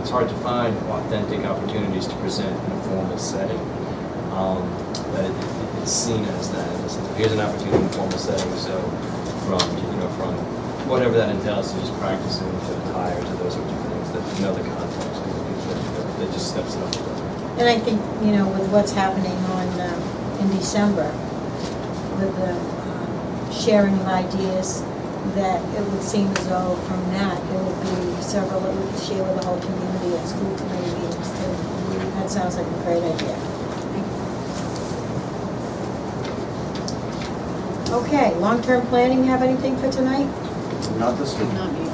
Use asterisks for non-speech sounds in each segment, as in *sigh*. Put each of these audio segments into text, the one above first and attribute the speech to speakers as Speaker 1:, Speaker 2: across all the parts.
Speaker 1: it's hard to find authentic opportunities to present in a formal setting. Um, But it- it's seen as that, as here's an opportunity in a formal setting, so from, you know, from whatever that entails, to just practicing to the tire, to those sorts of things, that, you know, the context, I think, is that- that just steps it up. a little.
Speaker 2: And I think, you know, with what's happening on, um, in December, with the um, sharing of ideas, that it would seem as though from that, there would be several that we could share with the whole community at school committee meetings too. That sounds like a great idea. Okay, long-term planning, you have anything for tonight?
Speaker 3: Not this week.
Speaker 4: Not me.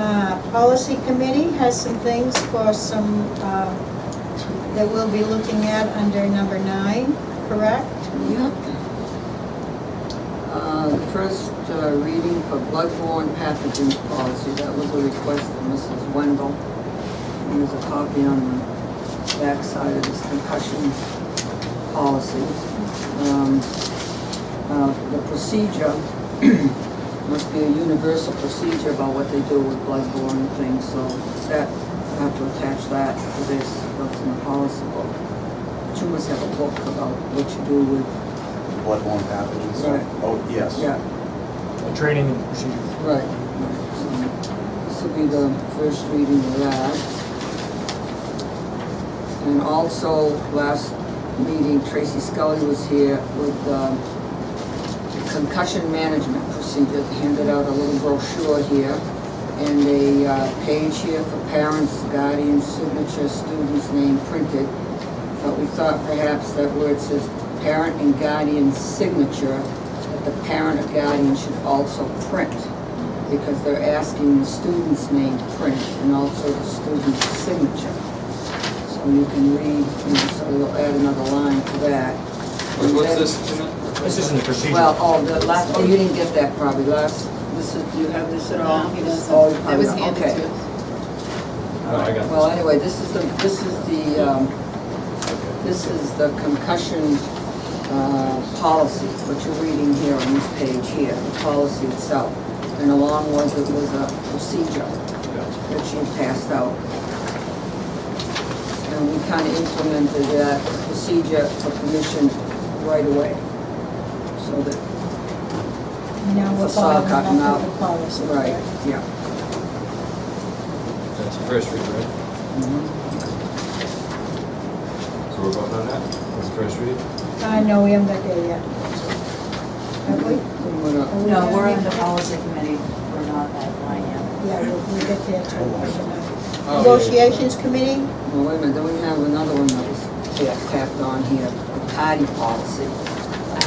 Speaker 2: Uh, Policy Committee has some things for some, uh, that we'll be looking at under number nine, correct?
Speaker 4: Yep. Uh, the First uh, reading for bloodborne pathogens policy, that was a request from Mrs. Wendell. And There's a copy on the backside of this concussion policy. Um, uh, The procedure *clears throat* must be a universal procedure about what they do with bloodborne things, so that, I have to attach that to this, what's in the policy book. But You must have a book about what you do with
Speaker 3: Bloodborne pathogens.
Speaker 4: Right.
Speaker 3: Oh, yes.
Speaker 4: yeah,
Speaker 5: A training and procedure.
Speaker 4: right. So This will be the first reading of that. And also, last meeting, Tracy Scully was here with um, concussion management procedure, handed out a little brochure here, and a uh, page here for parents, guardians, signature, student's name printed. But we thought perhaps that where it says parent and guardian signature, that the parent or guardian should also print, because they're asking the student's name print and also the student's signature. So you can read, you know, so we'll add another line to that.
Speaker 1: What- What's
Speaker 4: And then-
Speaker 1: this, Jeanette?
Speaker 5: This isn't a procedure.
Speaker 4: well, oh, the last, oh, you didn't get that probably, last, this is, do you have this at all?
Speaker 6: No, he doesn't.
Speaker 4: Oh, you probably
Speaker 6: It was
Speaker 4: don't.
Speaker 6: handed
Speaker 4: Okay.
Speaker 6: to us.
Speaker 1: No, Oh, I got
Speaker 4: Well,
Speaker 1: this.
Speaker 4: anyway, this is the, this is the, um, this is the concussion, uh, policy, what you're reading here on this page here, the policy itself. And along with it was a procedure
Speaker 1: Gotcha.
Speaker 4: that she passed out. And we kind of implemented that procedure for permission right away. So that
Speaker 2: Now we're
Speaker 4: It's a sock
Speaker 2: following up
Speaker 4: cotton
Speaker 2: with
Speaker 4: out.
Speaker 2: the policy.
Speaker 4: Right, yeah.
Speaker 1: That's the first read, right? So we're voting on that? That's the first read?
Speaker 2: Uh, no, we haven't got there yet. Have we? Are we
Speaker 7: No,
Speaker 2: there
Speaker 7: we're in the
Speaker 2: yet?
Speaker 7: policy committee, we're not that line yet.
Speaker 2: Yeah, we'll, we'll get there too.
Speaker 1: Oh, yeah.
Speaker 2: Negotiations Committee,
Speaker 4: Well, wait a minute, then we have another one that was ta- tapped on here, the party policy.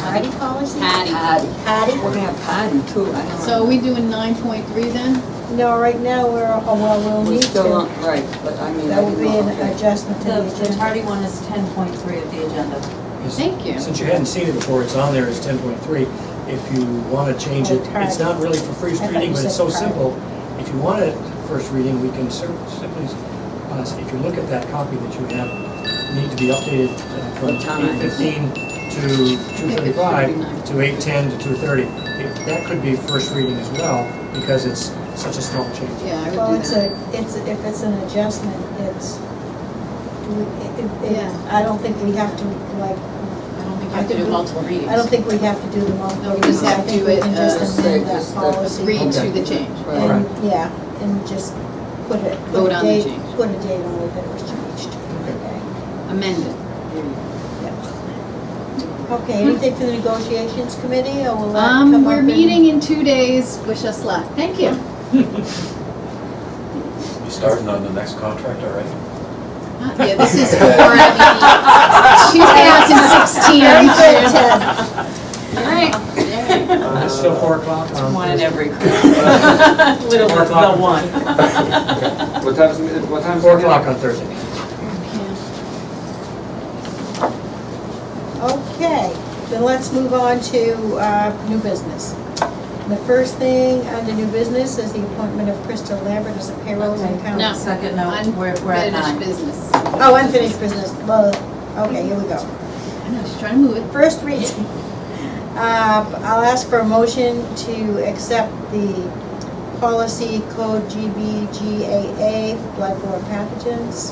Speaker 2: party policy?
Speaker 6: Patty.
Speaker 4: Party.
Speaker 2: Party?
Speaker 4: We're gonna have party too, I don't know.
Speaker 6: So are we doing nine point three then?
Speaker 2: No, right now, we're, oh, well, we'll
Speaker 4: We're
Speaker 2: need
Speaker 4: still
Speaker 2: to.
Speaker 4: on, right, but I mean, I
Speaker 2: That would
Speaker 4: didn't
Speaker 2: be
Speaker 4: know,
Speaker 2: an
Speaker 4: okay.
Speaker 2: adjustment to the
Speaker 7: The, the
Speaker 2: agenda.
Speaker 7: tardy one is ten point three of the agenda.
Speaker 5: Because
Speaker 6: Thank you.
Speaker 5: Since you hadn't seen it before, it's on there as ten point three. If you want to change it,
Speaker 2: Oh,
Speaker 5: it's not really for
Speaker 2: I
Speaker 5: first
Speaker 2: thought you
Speaker 5: reading, but it's
Speaker 2: said
Speaker 5: so
Speaker 2: prior.
Speaker 5: simple. If you want it first reading, we can cer- simply, uh, if you look at that copy that you have, need to be updated uh, from
Speaker 4: What time?
Speaker 5: eight fifteen to two thirty-five, to eight ten to two thirty. That could be first reading as well, because it's such a small change.
Speaker 6: Yeah, I
Speaker 2: Well,
Speaker 6: would
Speaker 2: it's
Speaker 6: do
Speaker 2: a,
Speaker 6: that.
Speaker 2: it's, if it's an adjustment, it's, do we- it- it-
Speaker 6: Yeah.
Speaker 2: I don't think we have to, like,
Speaker 6: I don't think you
Speaker 2: I
Speaker 6: have to
Speaker 2: think
Speaker 6: do
Speaker 2: we-
Speaker 6: multiple readings.
Speaker 2: I don't think we have to do the multiple.
Speaker 6: No, we just
Speaker 2: readings. I
Speaker 6: have
Speaker 2: think
Speaker 6: to,
Speaker 2: we can
Speaker 6: uh,
Speaker 2: just
Speaker 4: say
Speaker 2: amend that
Speaker 4: just the
Speaker 2: policy.
Speaker 6: Read
Speaker 5: Okay.
Speaker 6: to the change.
Speaker 4: Right.
Speaker 2: And, yeah, and just put it, put
Speaker 6: Vote
Speaker 2: a
Speaker 6: on the
Speaker 2: date,
Speaker 6: change.
Speaker 2: put a date on it that it was changed. Okay.
Speaker 6: Amend it.
Speaker 2: Okay, anything for the negotiations committee, or will that come up?
Speaker 6: Um, we're
Speaker 2: in-
Speaker 6: meeting in two days. Wish us luck. Thank you.
Speaker 8: You starting on the next contract already?
Speaker 6: Uh, Yeah, this is for the two thousand sixteen.
Speaker 2: Very good, Ted.
Speaker 6: All right.
Speaker 5: Uh, It's still four o'clock on
Speaker 7: One in
Speaker 5: Thursday.
Speaker 7: every group.
Speaker 5: Um, *laughs*
Speaker 7: Little
Speaker 5: Four
Speaker 7: is the
Speaker 5: o'clock.
Speaker 7: one.
Speaker 1: What time's, the meet- what time's? the
Speaker 5: Four
Speaker 1: meeting?
Speaker 5: o'clock on Thursday.
Speaker 2: Okay, then let's move on to uh, new business. The first thing under new business is the appointment of Krista Lambert as a payroll and
Speaker 7: Okay.
Speaker 6: No.
Speaker 2: accountant.
Speaker 7: Second note, we're, we're at
Speaker 6: Unfinished
Speaker 7: nine.
Speaker 6: business.
Speaker 2: Oh, unfinished business, Blah. okay, here we go.
Speaker 6: I know, she's trying to move it.
Speaker 2: First *laughs* reading. Uh, I'll ask for a motion to accept the policy code GBGAA, bloodborne pathogens.